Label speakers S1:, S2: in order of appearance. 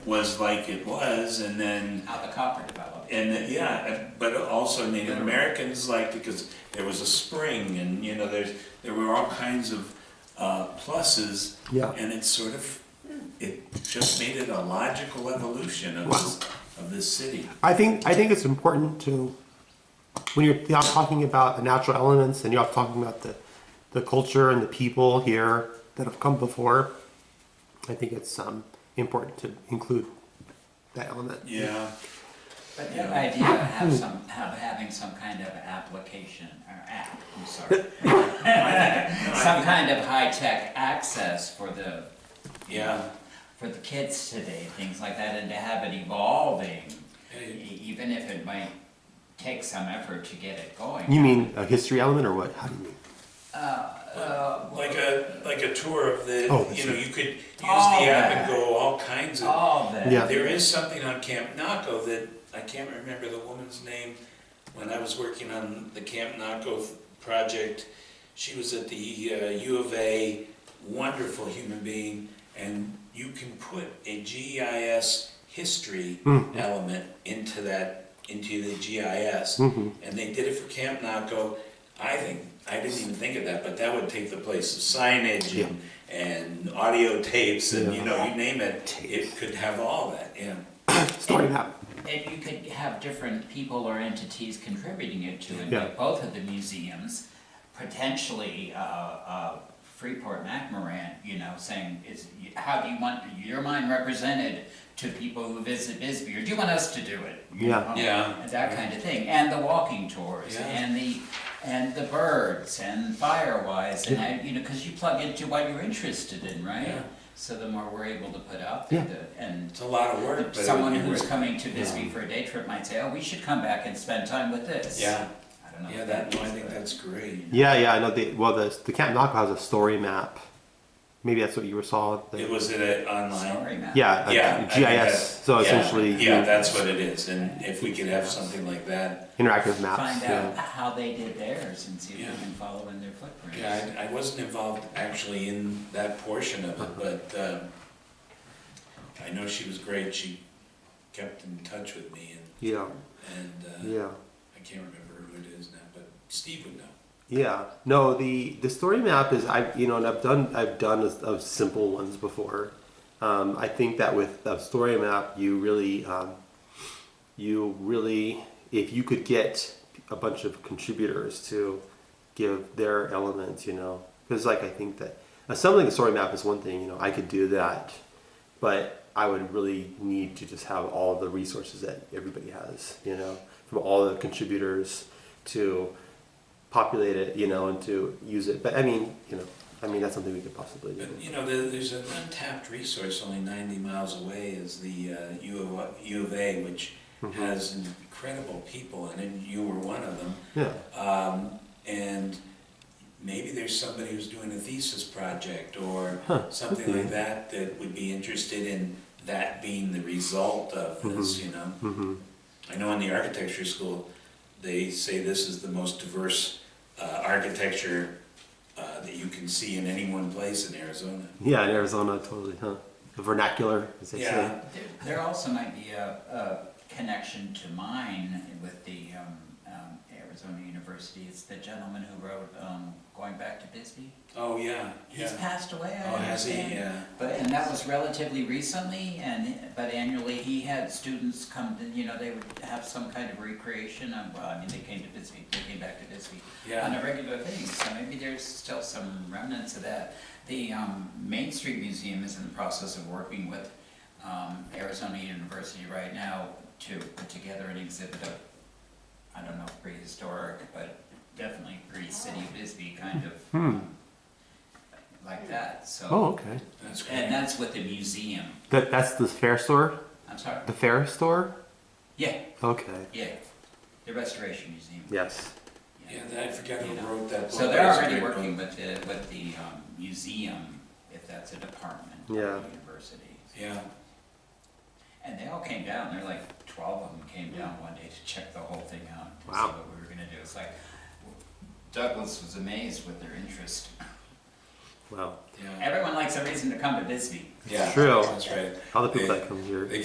S1: was like it was, and then
S2: how the copper developed.
S1: and then, yeah, but also Native Americans like because there was a spring, and you know there's there were all kinds of uh, pluses,
S3: Yeah.
S1: and it sort of it just made it a logical evolution of this of this city.
S3: I think I think it's important to when you're th- talking about the natural elements and you're talking about the the culture and the people here that have come before. I think it's um, important to include that element.
S1: Yeah,
S2: But the idea of have some, of having some kind of application, or app, I'm sorry. Some kind of high-tech access for the,
S1: yeah,
S2: for the kids today, things like that, and to have it evolving, e- even if it might take some effort to get it going.
S3: You mean a history element or what? How do you mean?
S1: Uh,
S2: Uh,
S1: like a like a tour of the
S3: Oh, I
S1: you know
S3: see.
S1: you could use
S2: All
S1: the app and
S2: that.
S1: go all kinds of
S2: All that.
S3: Yeah.
S1: There is something on Camp Naco that, I can't remember the woman's name, when I was working on the Camp Naco project, she was at the uh, U of A, wonderful human being, and you can put a GIS history element into that, into the GIS. And they did it for Camp Naco. I think, I didn't even think of that, but that would take the place of signage and, and audio tapes and, you know, you name it. It could have all that, yeah.
S3: Story map.
S2: And you could have different people or entities contributing it to, and
S3: Yeah.
S2: like both of the museums, potentially, uh, uh, Freeport MacMoran, you know, saying, is, how do you want your mind represented to people who visit Bisbee, or do you want us to do it? you
S3: Yeah.
S2: know,
S1: Yeah.
S2: and That kind of thing, and the walking tours,
S1: Yeah.
S2: and the, and the birds, and Firewise, and I, you know, cause you plug into what you're interested in,
S1: Yeah.
S2: right? So the more we're able to put out
S3: Yeah.
S2: there, the- and
S1: It's a lot of work, but. it would
S2: someone
S1: be
S2: who's
S1: worth-
S2: coming to Bisbee for a day trip might say, oh, we should come back and spend time with this.
S1: Yeah,
S2: I don't know.
S1: yeah,
S2: if
S1: that,
S2: means,
S1: I think
S2: but-
S1: that's great.
S3: Yeah, yeah. I know. The, well, the the Camp Naco has a story map. Maybe that's what you were saw. The,
S1: It was it a- online?
S2: Sorry, Matt.
S3: yeah, a
S1: Yeah. I think
S3: GIS.
S1: that-
S3: So
S1: yeah,
S3: essentially,
S1: Yeah, that's what it is, and if we could have something like that.
S3: interactive maps.
S2: Find out
S3: yeah.
S2: how they did theirs and see if
S1: Yeah.
S2: we can follow in their footprints.
S1: Yeah, I, I wasn't involved actually in that portion of it, but, um, I know she was great, she kept in touch with me
S3: Yeah.
S1: and, and, uh,
S3: Yeah.
S1: I can't remember who it is now, but Steve would know.
S3: Yeah. No, the the story map is I you know and I've done I've done a, a simple ones before. Um, I think that with a story map, you really um, you really if you could get a bunch of contributors to give their elements, you know, because like I think that assembling a story map is one thing. You know, I could do that, but I would really need to just have all the resources that everybody has, you know, from all the contributors to populate it, you know, and to use it. But I mean, you know, I mean that's something we could possibly do.
S1: But, you know, there, there's an untapped resource only ninety miles away is the, uh, U of, U of A, which has incredible people, and then you were one of them.
S3: Yeah.
S1: Um, and maybe there's somebody who's doing a thesis project or
S3: Huh,
S1: something
S3: okay.
S1: like that that would be interested in that being the result of this, you know?
S3: Mm-hmm.
S1: I know in the architecture school, they say this is the most diverse uh, architecture uh, that you can see in any one place in Arizona.
S3: Yeah, in Arizona, totally, huh? The vernacular, as they
S1: Yeah.
S3: say.
S2: There- There also might be a, a connection to mine with the, um, um, Arizona University. It's the gentleman who wrote, um, Going Back to Bisbee.
S1: Oh, yeah,
S2: He's
S1: yeah.
S2: passed away, I
S1: Oh, has he?
S2: understand.
S1: Yeah.
S2: But, and that was relatively recently, and, but annually, he had students come, to you know, they would have some kind of recreation, of- well, I mean, they came to Bisbee, they came back to Bisbee
S1: Yeah.
S2: on a regular thing, so maybe there's still some remnants of that. The um, Main Street Museum is in the process of working with um, Arizona University right now to put together an exhibit of, I don't know, if prehistoric, but definitely pre-city of Bisbee kind of, um, like that, so.
S3: Oh, okay.
S1: That's great.
S2: And that's with the museum.
S3: That that's the fair store,
S2: I'm sorry.
S3: the fair store.
S2: Yeah,
S3: Okay.
S2: yeah. The Restoration Museum.
S3: Yes.
S1: Yeah, that- I forgot who wrote that book.
S2: So they're
S1: That's a
S2: already
S1: great book.
S2: working with the, with the um, museum, if that's a department of
S3: Yeah.
S2: the university.
S1: Yeah,
S2: And they all came down, there were like twelve of them came down one day to check the whole thing out, to see
S3: Wow.
S2: what we were gonna do. It's like, Douglas was amazed with their interest.
S3: Wow.
S1: Yeah.
S2: Everyone likes a reason to come to Bisbee.
S1: Yeah,
S3: True.
S1: That's right.
S3: All the people
S1: They-
S3: that come here.
S1: they